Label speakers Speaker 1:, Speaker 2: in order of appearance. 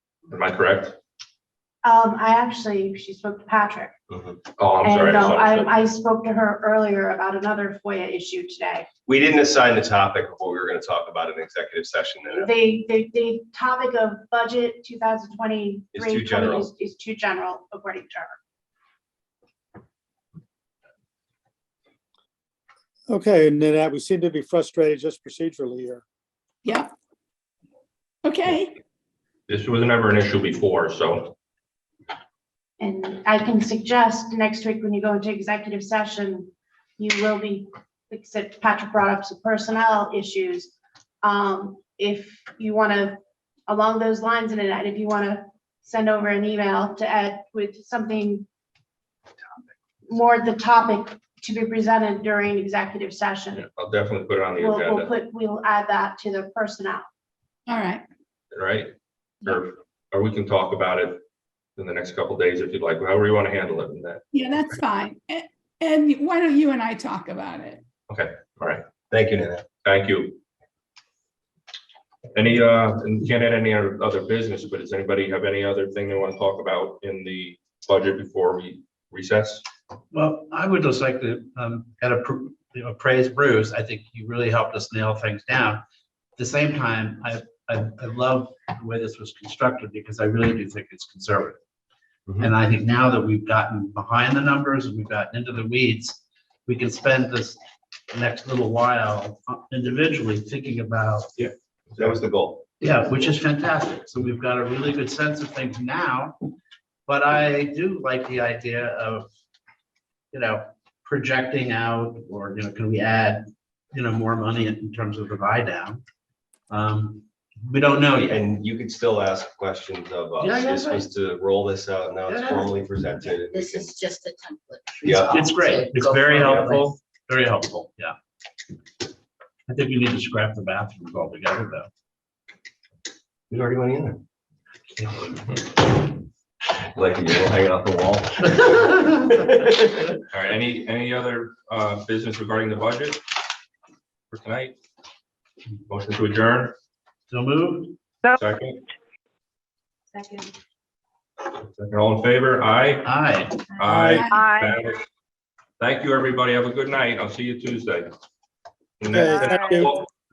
Speaker 1: Am I correct?
Speaker 2: Um, I actually, she spoke to Patrick.
Speaker 1: Oh, I'm sorry.
Speaker 2: And
Speaker 1: I
Speaker 2: uh,
Speaker 1: misunderstood.
Speaker 2: I, I spoke to her earlier about another FOIA issue today.
Speaker 1: We didn't assign the topic of what we were going to talk about in executive session. and
Speaker 2: The, the, the topic of budget 2023
Speaker 1: It's too general.
Speaker 2: is- Is too general, according to her.
Speaker 3: Okay, and then uh, we seem to be frustrated just procedurally here.
Speaker 4: Yeah. Okay,
Speaker 1: This was never an issue before, so
Speaker 2: And I can suggest next week when you go into executive session, you will be, except Patrick brought up some personnel issues. Um, if you want to, along those lines, and then if you want to send over an email to Ed with something more the topic to be presented during executive session,
Speaker 1: I'll definitely put it on the
Speaker 2: we'll, we'll
Speaker 1: agenda,
Speaker 2: put, we'll add that to the personnel.
Speaker 4: all right.
Speaker 1: right? Or, or we can talk about it in the next couple days if you'd like, however you want to handle it in that.
Speaker 4: Yeah, that's fine. And, and why don't you and I talk about it?
Speaker 1: Thank you, Nana. Thank you. Any, uh, and can't add any other other business, but does anybody have any other thing they want to talk about in the budget before we recess?
Speaker 5: Well, I would just like to, um, kind of, pr- you know, praise Bruce. I think he really helped us nail things down. At the same time, I, I, I love the way this was constructed because I really do think it's conservative.
Speaker 1: Mhm.
Speaker 5: And I think now that we've gotten behind the numbers and we've gotten into the weeds, we can spend this next little while uh, individually thinking about,
Speaker 1: That was the goal.
Speaker 5: yeah, which is fantastic. So we've got a really good sense of things now. But I do like the idea of, you know, projecting out or, you know, can we add, you know, more money in terms of the buy down? Um, we don't know yet.
Speaker 6: And you could still ask questions of
Speaker 5: Yeah,
Speaker 6: us.
Speaker 5: yeah,
Speaker 6: This was to roll this out. Now it's
Speaker 5: Yeah.
Speaker 6: formally presented.
Speaker 7: This is just a template.
Speaker 6: Yeah.
Speaker 5: It's great. It's
Speaker 7: Go
Speaker 5: very
Speaker 7: for it.
Speaker 5: helpful, very helpful, yeah. I think we need to scrap the bathrooms altogether, though.
Speaker 6: There's already money in there. Like you will hang it off the wall.
Speaker 1: All right, any, any other, uh, business regarding the budget for tonight? Motion to adjourn,
Speaker 5: So moved.
Speaker 1: second,
Speaker 2: Second.
Speaker 1: second, all in favor, aye?
Speaker 5: Aye.
Speaker 1: Aye.
Speaker 8: Aye.
Speaker 1: Thank you, everybody, have a good night, I'll see you Tuesday.
Speaker 3: Okay, thank you.
Speaker 1: Well,